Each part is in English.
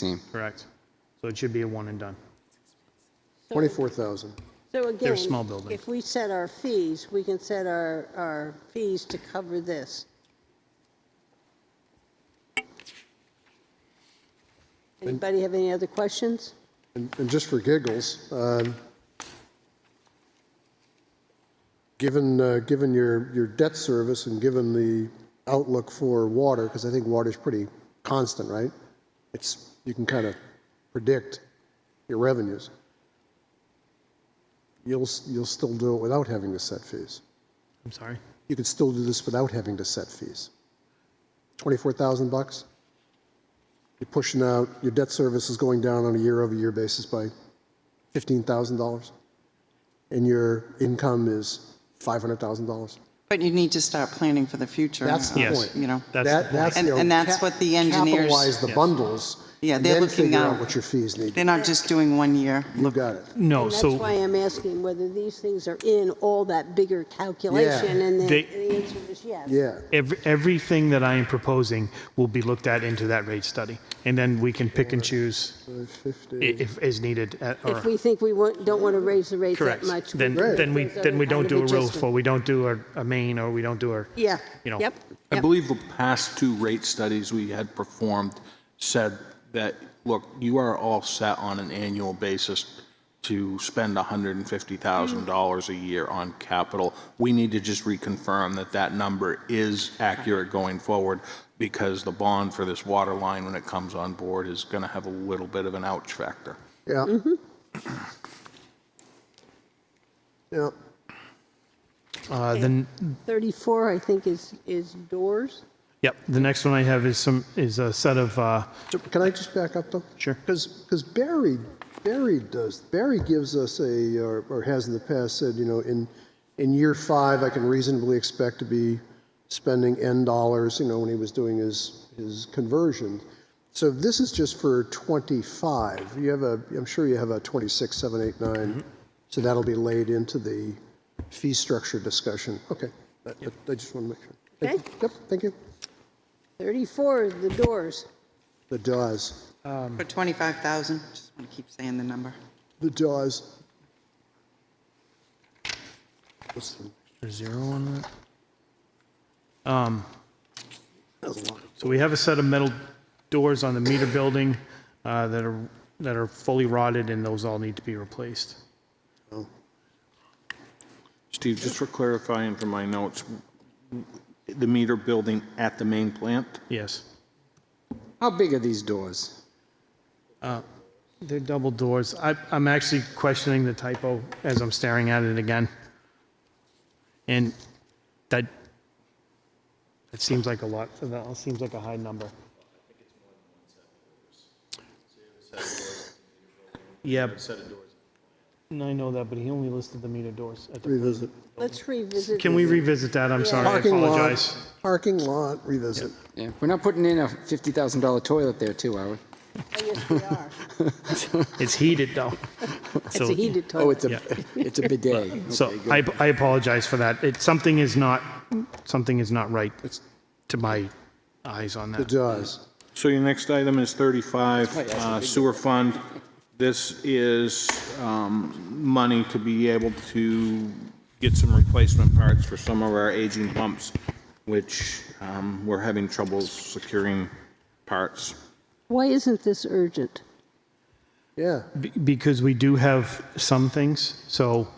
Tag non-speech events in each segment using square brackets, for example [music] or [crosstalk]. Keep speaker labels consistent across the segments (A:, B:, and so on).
A: team.
B: Correct. So it should be a one and done.
C: 24,000.
D: So again,
B: small buildings.
D: if we set our fees, we can set our, our fees to cover this. Anybody have any other questions?
C: And and just for giggles, um, given, uh, given your, your debt service and given the outlook for water, because I think water's pretty constant, right? It's, you can kind of predict your revenues. You'll, s- you'll still do it without having to set fees.
B: I'm sorry.
C: You could still do this without having to set fees. 24,000 bucks? You're pushing out, your debt service is going down on a year-over-year basis by $15,000, and your income is $500,000.
E: But you need to start planning for the future.
C: That's the
E: uh,
B: Yes.
C: point.
E: You know,
B: That's
C: That-
B: the point.
E: And-
C: you know,
E: and that's
C: ca-
E: what the engineers-
C: Capitalize the
B: Yes.
C: bundles.
E: Yeah,
C: and
E: they're
C: then
E: looking
C: figure
E: out-
C: what your fees need.
E: they're not just doing one year.
C: You got it.
B: No,
D: And that's
B: Oh, so
D: why I'm asking whether these things are in all that bigger calculation, and the
B: They-
D: the answer is yes.
C: Yeah.
B: every, everything that I am proposing will be looked at into that rate study. And then we can pick and choose i-
C: 50.
B: if, as needed at,
D: If
B: or,
D: we think we want, don't want to raise the rates that
B: correct.
D: much.
B: Then,
C: Right.
B: then we, then we don't do a roof,
D: for.
B: or we don't do a, a main, or we don't do a,
D: Yeah.
B: you know.
D: Yep.
A: I
D: Yep.
A: believe the past two rate studies we had performed said that, look, you are all set on an annual basis to spend $150,000 a year on capital. We need to just reconfirm that that number is accurate going forward because the bond for this water line, when it comes on board, is going to have a little bit of an ouch factor.
C: Yeah. Yeah.
B: Uh, then,
D: 34, I think, is, is doors.
B: yep, the next one I have is some, is a set of, uh,
C: So Can I just back up, though?
B: Sure.
C: Because, Barry, Barry does, Barry gives us a, or or has in the past said, you know, in, in year five, I can reasonably expect to be spending N dollars, you know, when he was doing his, his conversion. So this is just for 25. You have a, I'm sure you have a 26, 7, 8, 9. So that'll be laid into the fee structure discussion. Okay. I- I I just want to make sure. Thank
D: Okay.
C: you. Yep, thank you.
D: 34 is the doors.
C: The DAWs.
E: For 25,000, just want to keep saying the number.
C: The jaws. What's the,
B: There's zero on Um, that. Um, so we have a set of metal doors on the meter building uh, that are that are fully rotted, and those all need to be replaced.
A: Steve, just for clarifying from my notes, the meter building at the main plant?
B: Yes,
F: How big are these doors?
B: they're double doors. I, I'm actually questioning the typo as I'm staring at it again, and that that seems like a lot. That seems like a high number. Yeah. And I know that, but he only listed the meter doors at the
C: revisit.
D: Let's revisit.
B: Can we
D: this.
B: revisit that? I'm sorry, I
C: Parking
B: apologize.
C: lot, parking lot, revisit.
F: Yeah, we're not putting in a $50,000 toilet there, too, are we?
D: Oh, Yes, we
B: [laughs]
D: are.
B: It's heated, though.
D: It's a heated toilet.
F: Oh, it's [laughs] a, it's a bidet.
B: So
F: Okay, good.
B: I, I apologize for that. It, something is not, something is not right to my eyes on
C: The
B: that.
C: jaws.
A: So your next item is 35, uh, sewer fund. This is um, money to be able to get some replacement parts for some of our aging pumps, which um, we're having troubles securing parts.
D: Why isn't this urgent?
C: Yeah.
B: Be- Because we do have some things, so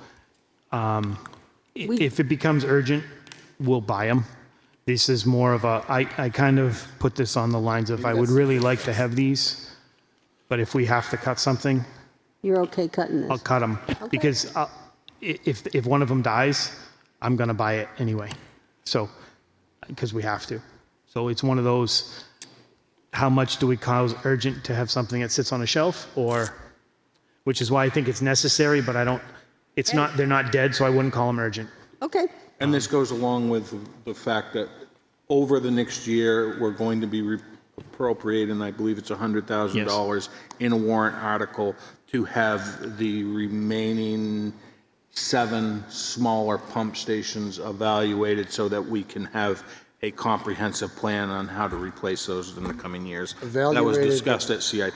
B: um, i- if it becomes urgent, we'll buy them. This is more of a, I, I kind of put this on the lines of, I would really like to have these, but if we have to cut something,
D: You're okay cutting
B: I'll
D: this?
B: cut them because I'll, i- if if one of them dies, I'm gonna buy it anyway. So, because we have to. So it's one of those. How much do we cause urgent to have something that sits on a shelf, or, which is why I think it's necessary, but I don't. It's not. They're not dead, so I wouldn't call them urgent.
D: Okay,
A: And this goes along with the fact that over the next year, we're going to be re- appropriating, I believe it's $100,000 in a warrant article to have the remaining seven smaller pump stations evaluated so that we can have a comprehensive plan on how to replace those in the coming years. That was
C: Evaluated.
A: discussed at CIP.